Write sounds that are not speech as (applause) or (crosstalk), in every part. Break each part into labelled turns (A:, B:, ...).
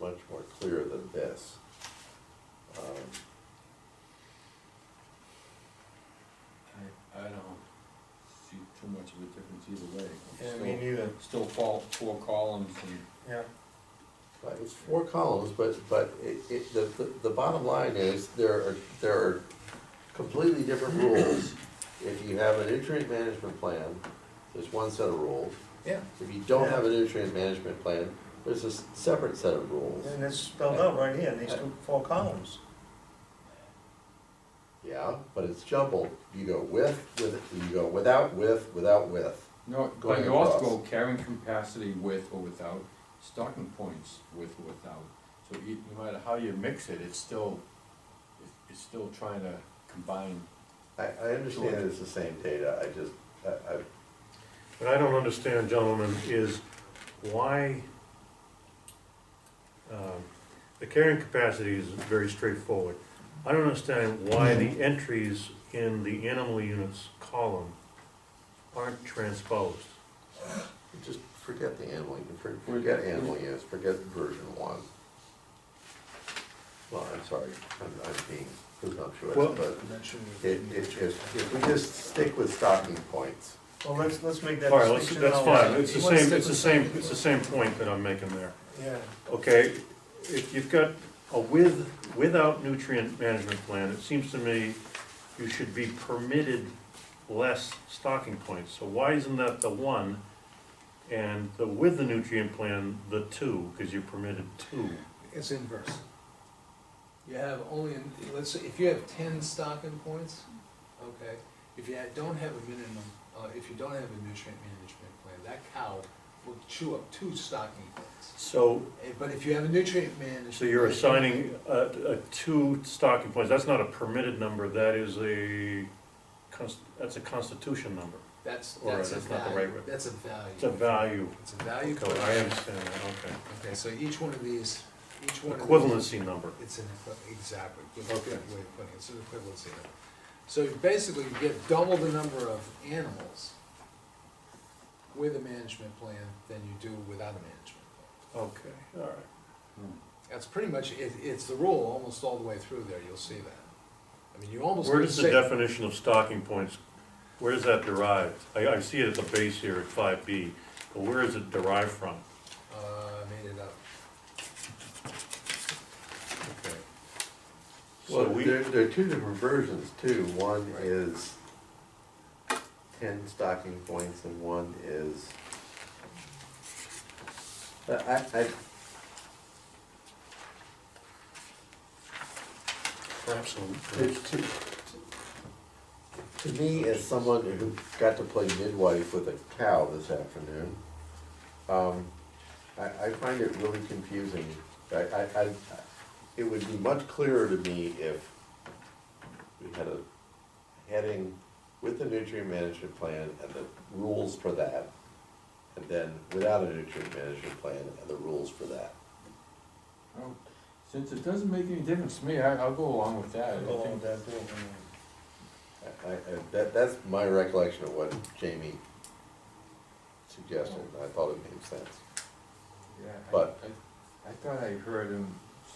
A: much more clear than this. Um,
B: I, I don't see too much of a difference either way.
C: Yeah, me neither,
B: Still fall, four columns and.
C: yeah.
A: Right, it's four columns, but, but it, it, the, the- the bottom line is, there are, there are completely (clears throat) different rules. If you have a nutrient management plan, there's one set of rules.
C: Yeah.
A: If you don't have a nutrient management plan, there's a s- separate set of rules.
C: And it's spelled out right here in these two, four columns.
A: Yeah, but it's jumbled, you go with, with, you go without, with, without, with.
B: No, but
A: Going
B: you also
A: across.
B: go carrying capacity with or without, stocking points with or without. So e- no matter how you mix it, it's still, it's- it's still trying to combine.
A: I, I understand it's the same data, I just, I, I,
D: What I don't understand, gentlemen, is why, um, the carrying capacity is very straightforward. I don't understand why the entries in the animal units column aren't transposed.
A: just forget the animal, you can for- forget animal units, forget version one. Well, I'm sorry, I'm, I'm being presumptuous,
D: Well-
A: but it, it, if, if we just stick with stocking points,
C: Well, let's, let's make that
D: All right, let's-
C: distinction.
D: that's
C: now.
D: fine, it's the
C: Let's
D: same,
C: stick
D: it's the
C: with-
D: same, it's the same point that I'm making there.
C: Yeah,
D: Okay, if you've got a with, without nutrient management plan, it seems to me you should be permitted less stocking points. So why isn't that the one? And the with the nutrient plan, the two, because you're permitted two.
E: It's inverse. You have only, an- let's say, if you have ten stocking points, okay, if you ha- don't have a minimum, uh, if you don't have a nutrient management plan, that cow will chew up two stocking points.
D: So,
E: Eh, But if you have a nutrient management.
D: so you're
E: plan-
D: assigning a, a two stocking points, that's not a permitted number, that is a, cons- that's a constitution number.
E: That's,
D: or
E: that's a
D: that's not the
E: value,
D: right word.
E: that's a
D: It's a
E: value,
D: value.
E: it's a value.
D: Okay, I
E: question.
D: understand that, okay.
E: Okay, so each one of these, each one of these.
D: Equivalency number.
E: It's an equi- exactly, good,
D: Okay.
E: good way of putting it, it's an equivalency number. So basically, you get double the number of animals with a management plan than you do without a management plan.
D: Okay, all right.
E: That's pretty much, it, it's the rule almost all the way through there, you'll see that. I mean, you almost.
D: Where
E: could
D: does the
E: say-
D: definition of stocking points, where is that derived? I, I see it at the base here at five B, but where is it derived from?
E: Uh, I made it up.
D: Okay. So
A: Well,
D: we,
A: there, there are two different versions too, one
E: Right.
A: is ten stocking points and one is. I, I, I-
D: perhaps,
A: To, to, to me, as someone who got to play midwife with a cow this afternoon, um, I, I find it really confusing. I, I, I, it would be much clearer to me if we had a heading with the nutrient management plan and the rules for that, and then without a nutrient management plan and the rules for that.
B: Oh, Since it doesn't make any difference to me, I, I'll go along with that. I
C: go along
B: think
C: with that too.
A: I, I, that, that's my recollection of what Jamie suggested, and I thought it made sense.
B: Yeah, I-
A: But-
B: I, I thought I heard him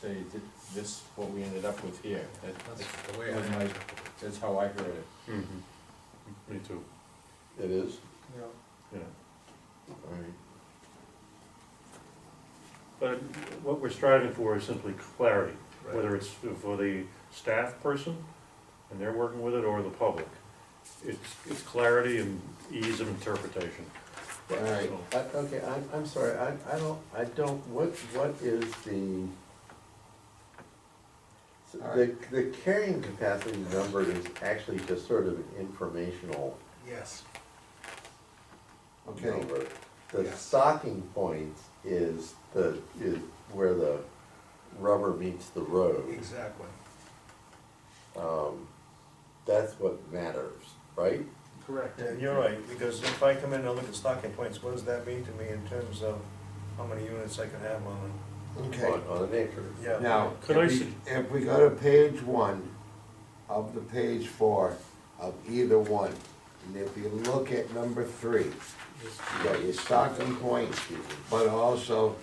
B: say that this, what we ended up with here, that,
E: That's the way I.
B: that was my, that's how I heard it.
D: Mhm. me too,
A: It is?
C: Yeah.
D: yeah.
A: Alright.
D: But what we're striving for is simply clarity,
E: Right.
D: whether it's for the staff person and they're working with it or the public. It's, it's clarity and ease of interpretation.
A: Yeah.
B: Alright.
D: So-
A: I, okay, I'm, I'm sorry, I, I don't, I don't, what, what is the? so The,
B: Alright.
A: the carrying capacity number is actually just sort of an informational
E: Yes,
B: Okay.
A: number. The
E: Yes.
A: stocking points is the, is where the rubber meets the road.
E: exactly,
A: Um, that's what matters, right?
E: correct.
C: Yeah, you're right, because if I come in and look at stocking points, what does that mean to me in terms of how many units I can have on
A: On, on an acre.
C: it? Yeah.
F: Now,
D: Could I
F: if we, if we go to page one of the page four of either one, and if you look at number three, you got your stocking point, but also